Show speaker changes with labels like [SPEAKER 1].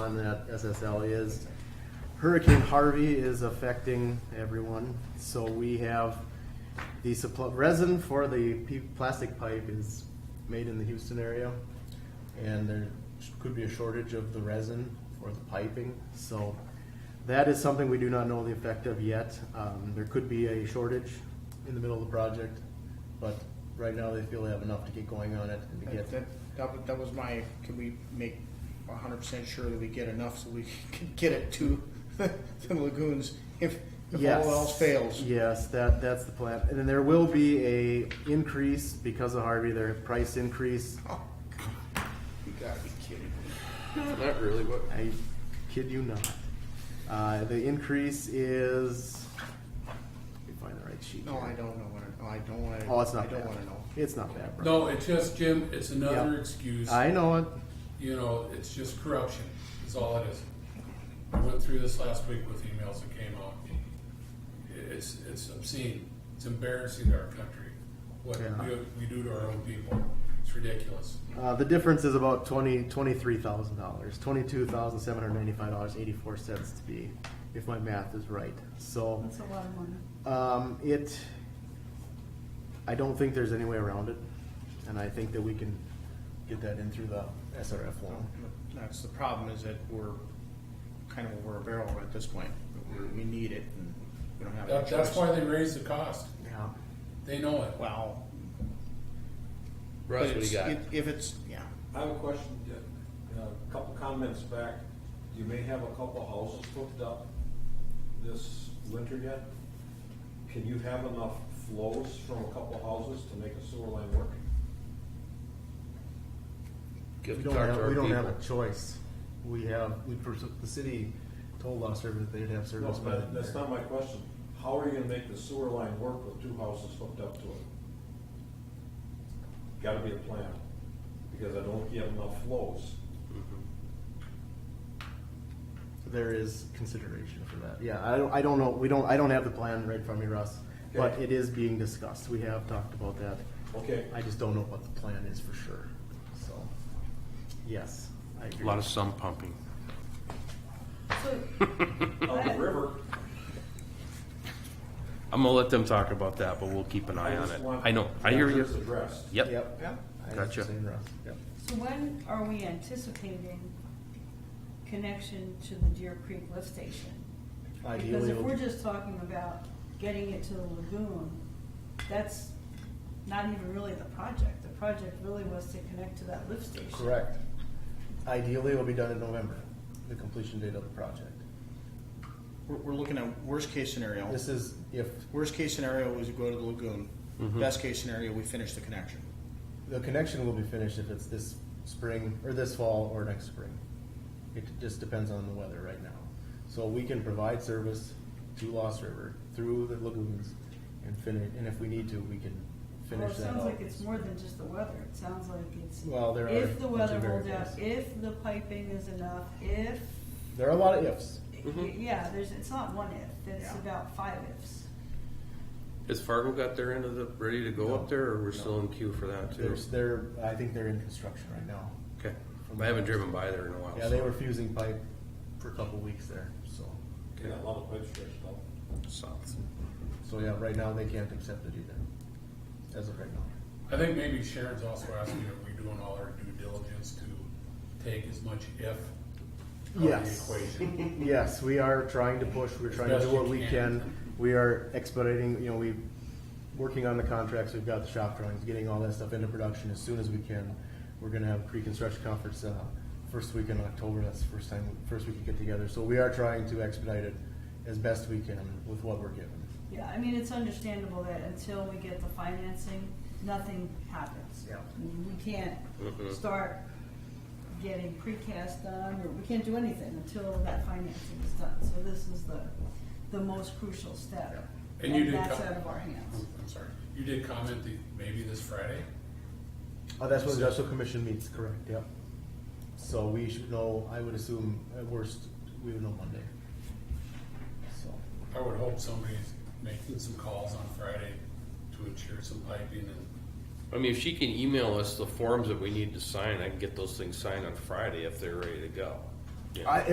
[SPEAKER 1] on that SSL is Hurricane Harvey is affecting everyone, so we have the supply, resin for the p- plastic pipe is made in the Houston area. And there could be a shortage of the resin for the piping, so that is something we do not know the effect of yet. Um, there could be a shortage in the middle of the project, but right now they feel they have enough to get going on it and to get.
[SPEAKER 2] That, that, that wa- that was my, can we make hundred percent sure that we get enough so we can get it to the lagoons if, if
[SPEAKER 1] Yes.
[SPEAKER 2] all else fails?
[SPEAKER 1] Yes, that, that's the plan. And then there will be a increase because of Harvey, their price increase.
[SPEAKER 2] Oh, You gotta be kidding me.
[SPEAKER 3] Not really, but
[SPEAKER 1] I kid you not. Uh, the increase is, let me find the right sheet.
[SPEAKER 2] No,
[SPEAKER 1] here.
[SPEAKER 2] I don't know what, it- no, I don't wanna.
[SPEAKER 1] Oh, it's not
[SPEAKER 2] I
[SPEAKER 1] bad.
[SPEAKER 2] don't wanna know.
[SPEAKER 1] It's not bad, bro.
[SPEAKER 4] No, it's just, Jim, it's another
[SPEAKER 1] Yeah.
[SPEAKER 4] excuse.
[SPEAKER 1] I know it.
[SPEAKER 4] You know, it's just corruption. That's all it is. I went through this last week with emails that came out. It's, it's obscene. It's embarrassing to our country. What
[SPEAKER 1] Yeah.
[SPEAKER 4] we, we do to our own people. It's ridiculous.
[SPEAKER 1] Uh, the difference is about twenty, twenty-three thousand dollars, twenty-two thousand seven hundred ninety-five dollars, eighty-four cents to be, if my math is right. So,
[SPEAKER 5] That's a lot of money.
[SPEAKER 1] um, it, I don't think there's any way around it. And I think that we can get that in through the SRF loan.
[SPEAKER 2] That's the problem is that we're kind of over a barrel at this point. We're, we need it and we don't have. a
[SPEAKER 4] That, that's
[SPEAKER 2] choice.
[SPEAKER 4] why they raised the cost.
[SPEAKER 1] Yeah.
[SPEAKER 4] They know it.
[SPEAKER 2] Well. but
[SPEAKER 3] Russ, what do
[SPEAKER 2] it's-
[SPEAKER 3] you got?
[SPEAKER 2] if- If it's, yeah,
[SPEAKER 6] I have a question, uh, a couple comments back. You may have a couple houses hooked up this winter yet. Can you have enough flows from a couple houses to make a sewer line work?
[SPEAKER 3] Give
[SPEAKER 1] We
[SPEAKER 3] the
[SPEAKER 1] don't
[SPEAKER 3] talk to
[SPEAKER 1] have,
[SPEAKER 3] our
[SPEAKER 1] we don't have
[SPEAKER 3] people.
[SPEAKER 1] a choice. We have, we, pers- the city told us that they'd have
[SPEAKER 6] No,
[SPEAKER 1] service. by
[SPEAKER 6] that- that's
[SPEAKER 1] the-
[SPEAKER 6] not my question. How are you gonna make the sewer line work with two houses hooked up to it? Gotta be a plan, because I don't get enough flows.
[SPEAKER 1] There is consideration for that. Yeah, I don't, I don't know, we don't, I don't have the plan right from me, Russ, but
[SPEAKER 6] Okay.
[SPEAKER 1] it is being discussed. We have talked about that.
[SPEAKER 6] Okay,
[SPEAKER 1] I just don't know what the plan is for sure, so, yes, I agree.
[SPEAKER 3] A lot of sump pumping.
[SPEAKER 5] So,
[SPEAKER 6] out the river,
[SPEAKER 3] I'm gonna let them talk about that, but we'll keep an
[SPEAKER 6] I
[SPEAKER 3] eye on
[SPEAKER 6] just
[SPEAKER 3] it.
[SPEAKER 6] want.
[SPEAKER 3] I know, I hear you.
[SPEAKER 6] That's addressed.
[SPEAKER 3] Yep,
[SPEAKER 1] Yep.
[SPEAKER 2] Yeah.
[SPEAKER 1] I was
[SPEAKER 3] Gotcha.
[SPEAKER 1] saying Russ, yep.
[SPEAKER 5] so when are we anticipating connection to the Deer Creek lift station? Because
[SPEAKER 1] Ideally,
[SPEAKER 5] if we're
[SPEAKER 1] it'll-
[SPEAKER 5] just talking about getting it to the lagoon, that's not even really the project. The project really was to connect to that lift station.
[SPEAKER 1] correct. Ideally, it'll be done in November, the completion date of the project.
[SPEAKER 2] we're, we're looking at worst case scenario.
[SPEAKER 1] This is if
[SPEAKER 2] Worst case scenario is we go to the lagoon.
[SPEAKER 1] Mm-hmm.
[SPEAKER 2] Best case scenario, we finish the connection.
[SPEAKER 1] The connection will be finished if it's this spring, or this fall, or next spring. It just depends on the weather right now. So we can provide service to Lost River through the lagoons and finish, and if we need to, we can
[SPEAKER 5] Well,
[SPEAKER 1] finish
[SPEAKER 5] it
[SPEAKER 1] that
[SPEAKER 5] sounds
[SPEAKER 1] out.
[SPEAKER 5] like it's more than just the weather. It sounds like it's,
[SPEAKER 1] Well, there are.
[SPEAKER 5] if the
[SPEAKER 1] bunch of
[SPEAKER 5] weather holds
[SPEAKER 1] variables.
[SPEAKER 5] out, if the piping is enough, if,
[SPEAKER 1] There are a lot of ifs. Mm-hmm.
[SPEAKER 5] yeah, there's, it's not one if, it's
[SPEAKER 2] Yeah.
[SPEAKER 5] about five ifs.
[SPEAKER 3] has Fargo got their end of the, ready to go up there, or we're still in queue for that too?
[SPEAKER 1] There's, they're, I think they're in construction right now.
[SPEAKER 3] Okay, I haven't driven by there in a while.
[SPEAKER 1] Yeah, they
[SPEAKER 3] so-
[SPEAKER 1] were fusing pipe for a couple weeks there, so,
[SPEAKER 6] Yeah, a lot of pipe stretched out.
[SPEAKER 3] South.
[SPEAKER 1] so yeah, right now they can't accept it either, as of right now.
[SPEAKER 4] I think maybe Sharon's also asking if we're doing all our due diligence to take as much if out of
[SPEAKER 1] Yes.
[SPEAKER 4] the equation.
[SPEAKER 1] Yes, we are trying to push, we're trying to
[SPEAKER 4] best
[SPEAKER 1] do
[SPEAKER 4] you
[SPEAKER 1] what we
[SPEAKER 4] can.
[SPEAKER 1] can. We are expediting, you know, we, working on the contracts, we've got the shop drawings, getting all that stuff into production as soon as we can. We're gonna have pre-construction conference, uh, first week in October, that's the first time, first we could get together. So we are trying to expedite it as best we can with what we're given.
[SPEAKER 5] Yeah, I mean, it's understandable that until we get the financing, nothing happens.
[SPEAKER 1] Yeah.
[SPEAKER 5] I mean, We can't start getting precast done, or we can't do anything until that financing is done. So this is the, the most crucial step.
[SPEAKER 4] Yeah. And you did
[SPEAKER 5] that's
[SPEAKER 4] co-
[SPEAKER 5] out of our hands.
[SPEAKER 4] I'm sorry. You did comment that maybe this Friday?
[SPEAKER 1] Uh, that's when the industrial commission meets, correct, yep. So we should know, I would assume, at worst, we would know Monday. So.
[SPEAKER 4] I would hope somebody's making some calls on Friday to ensure some piping and,
[SPEAKER 3] I mean, if she can email us the forms that we need to sign, I can get those things signed on Friday if they're ready to go.
[SPEAKER 7] Yeah.
[SPEAKER 3] I,